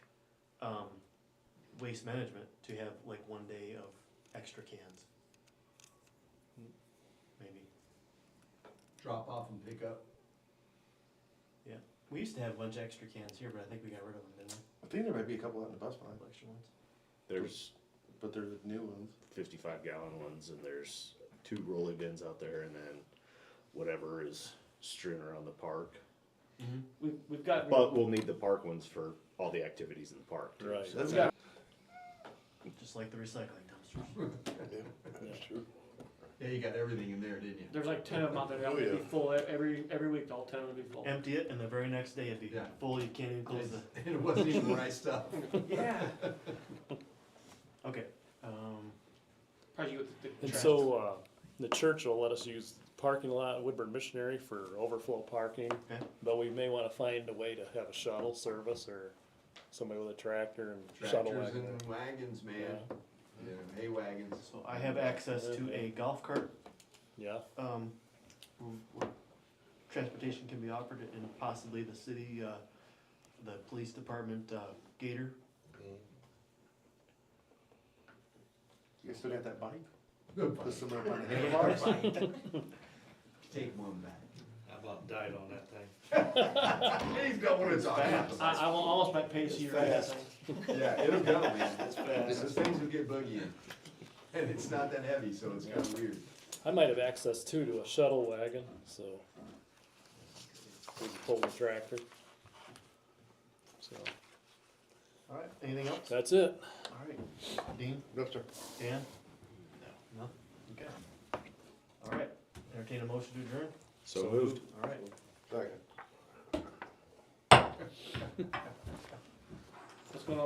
um, waste management to have like one day of extra cans. Maybe. drop off and pick up. We used to have a bunch of extra cans here, but I think we got rid of them, didn't we? I think there might be a couple out in the bus line, Couple extra ones. There's but they're the new ones. fifty-five gallon ones and there's two rolling bins out there and then whatever is strewn around the park. We've, we've got, But we'll need the park ones for all the activities in the park. too, Right. so- That's we've got Just like the recycling dumpsters. That's true. Yeah, you got everything in there, didn't you? There's like ten of them out there that Oh, would be yeah. full e- every, every week, all ten would be full. Empty it, and the very next day it'd be Yeah. full. You can't even close the. It wasn't even the right stuff. Yeah. Okay. Um, Probably with the, the And trash. so, uh, the church will let us use the parking lot at Woodburn Missionary for overflow parking. Okay. But we may wanna find a way to have a shuttle service or somebody with a tractor and shuttle Tractors wagon. and wagons, man, you know, hay wagons. so I have access to a golf cart Yeah, um, where transportation can be offered and possibly the city, uh, the police department, uh, Gator. You guys still got that bike? Good Put bike. some up on the handlebars? Bike. Take one back. I about died on that thing. He's got one of those. I, I will almost bet pace you right now. Yeah, it'll go, man. It's fast. Those things will get buggy in. And it's not that heavy, so it's kinda weird. I might have access too to a shuttle wagon, so. We can pull the tractor. So, All right, anything else? that's it. All right, Dean, No, sir. Dan? No. No? Okay. All right, entertain a motion to adjourn? So moved. All right. Second.